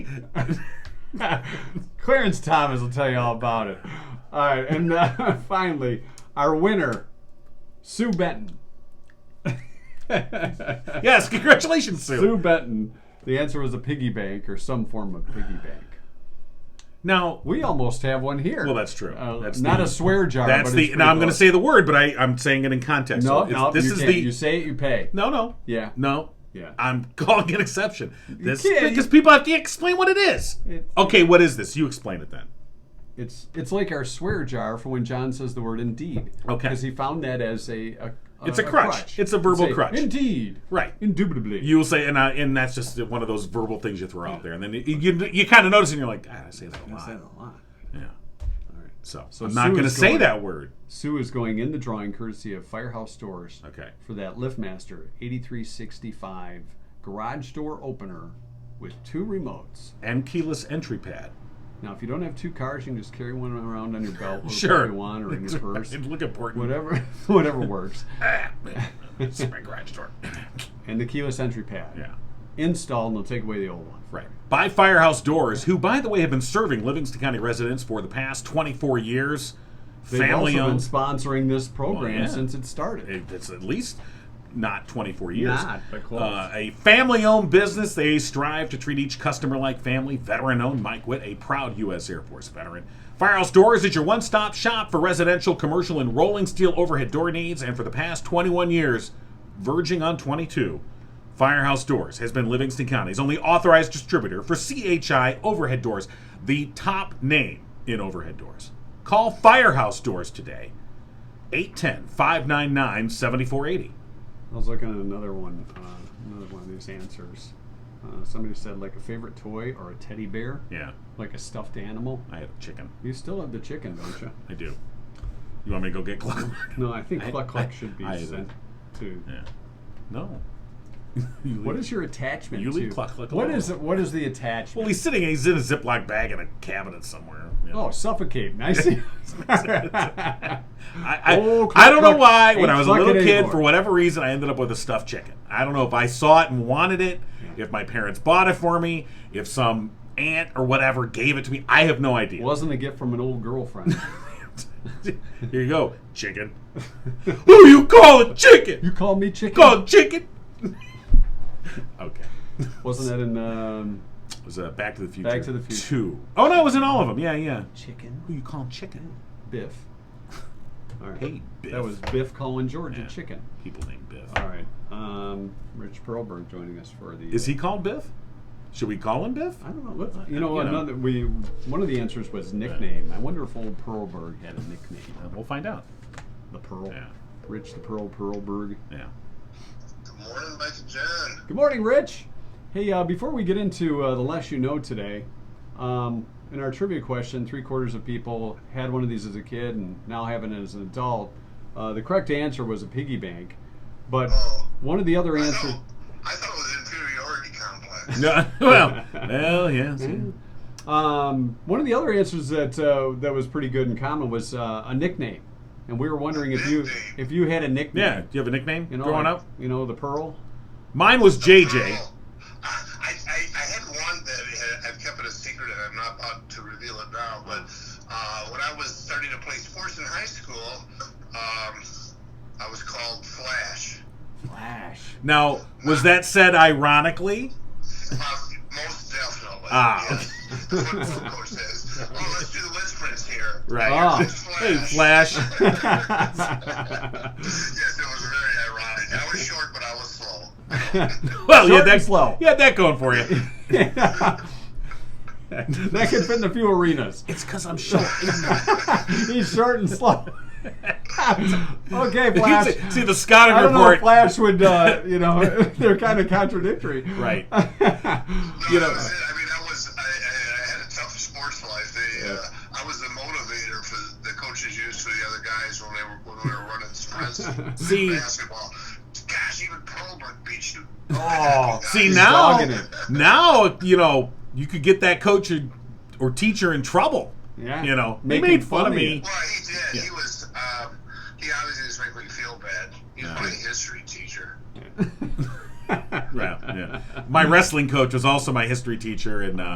Clarence Thomas will tell you all about it. All right, and uh, finally, our winner, Sue Benton. Yes, congratulations, Sue. Sue Benton. The answer was a piggy bank or some form of piggy bank. Now, We almost have one here. well, that's true. Uh, that's not the- a swear jar. That's but the. it's Now I'm pretty going to close. say the word, but I, I'm saying it in context. no, So it's- no. this you is can't. the. You say it, you pay. no, no. Yeah. No. Yeah. I'm calling it exception. This can't- because people have to explain what it is. It's- okay, what is this? You explain it then. It's it's like our swear jar for when John says the word indeed. Okay. Because he found that as a, a, It's a crutch. It's a verbal Say, crutch. Indeed. Right. Indubitably. You'll say, and I, and that's just one of those verbal things you throw out there, and then you you, you kind of notice, and you're like, God, I say that a lot. Say that a lot. Yeah. So, I'm Sue not going to is say going- that word. Sue is going in the drawing courtesy of Firehouse Doors Okay. for that LiftMaster 8365 garage door opener with two remotes. And keyless entry pad. Now, if you don't have two cars, you can just carry one around on your belt or Sure. you want or in your purse, Look important. whatever, whatever works. It's my garage door. And the keyless entry pad. yeah. Install and they'll take away the old one. Right. By Firehouse Doors, who, by the way, have been serving Livingston County residents for the past 24 years. They've also Family been owned. sponsoring this program yeah. since it started. It's at least not 24 years. Not, but close. Uh, a family owned business. They strive to treat each customer like family. Veteran owned Mike Witt, a proud U.S. Air Force veteran. Firehouse Doors is your one stop shop for residential, commercial, and rolling steel overhead door needs. And for the past 21 years, verging on 22, Firehouse Doors has been Livingston County's only authorized distributor for CHI overhead doors, the top name in overhead doors. Call Firehouse Doors today, 810 599 7480. I was looking at another one, uh, another one of these answers. Uh, somebody said like a favorite toy or a teddy bear, Yeah, like a stuffed animal. I had a chicken. You still have the chicken, don't you? I do. You want me to go get Gluck? No, I think I- Cluck I- Cluck should be I- sent to. yeah. No. What is your attachment You to? leave Cluck Cluck What alone. is it? What is the attachment? Well, he's sitting. He's in a Ziploc bag in a cabinet somewhere. you know. oh, suffocate. I see. I, I, Oh, Cluck I don't know Cluck why. When ain't I was a Cluck it little kid, anymore. for whatever reason, I ended up with a stuffed chicken. I don't know if I saw it and wanted it, if my parents bought it for me, if some aunt or whatever gave it to me. I have no idea. Wasn't a gift from an old girlfriend. Here you go, chicken. Who you calling chicken? you called me chicken. called chicken? okay. Wasn't that in um, It was uh, Back to the Future. Back to the Future. Two. Oh no, it was in all of them. Yeah, yeah. chicken? Who you calling chicken? Biff. All right. Hey, Biff. That was Biff calling George Yeah. a chicken. people named Biff. All right. Um, Rich Perlberg joining us for the. Is he called Biff? Should we call him Biff? I don't know. Let's, You you know, know. another we one of the answers was nickname. I wonder if old Perlberg had a nickname. Uh, we'll find out. The Pearl. Yeah. Rich the Pearl Perlberg. Yeah. Good morning, Mike and John. Good morning, Rich. Hey, uh, before we get into uh, the less you know today, um, in our trivia question, three quarters of people had one of these as a kid and now have it as an adult. Uh, the correct answer was a piggy bank, but Oh. one of the other I answers. thought, I thought it was inferiority complex. No, well, well, yes. Hmm. yeah. Um, one of the other answers that uh, that was pretty good in common was uh, a nickname, and we were wondering if you if you had a nickname. Yeah. Do you have a nickname You know, growing like, up? You know, the Pearl. Mine was JJ. Oh, I, I, I I had one that had- I've kept it a secret and I'm not about to reveal it now, but uh, when I was starting to play sports in high school, um, I was called Flash. Flash. Now, was that said ironically? Uh, most definitely. Ah. Yes. That's what the football coach says. Oh, let's do the wind sprints here. Right. Ah. Hey, Flash. Yes, it was very ironic. I was short, but I was slow. Well, you Short had that and slow. You had that going for you. that could fit in a few arenas. it's because I'm short. He's short and slow. okay, Flash. see, see the Scouting I don't know report. if Flash would, uh, you know, they're kind of contradictory. Right. No, You you know- know, was it. I mean, I was. I, I, I had a tough sports life. They, uh, I was the motivator for the coaches used for the other guys when they were when we were running sprints and See- basketball. Gosh, even Pearlberg beat you. Oh, See He's now, dogging it. now you know you could get that coach or, or teacher in trouble. Yeah. you know, Make he him made fun fun of of me. you. Well, he did. Yeah. He was. Um, he obviously just made me feel bad. He's Yeah. my history teacher. Yeah, yeah. My wrestling coach was also my history teacher, and uh,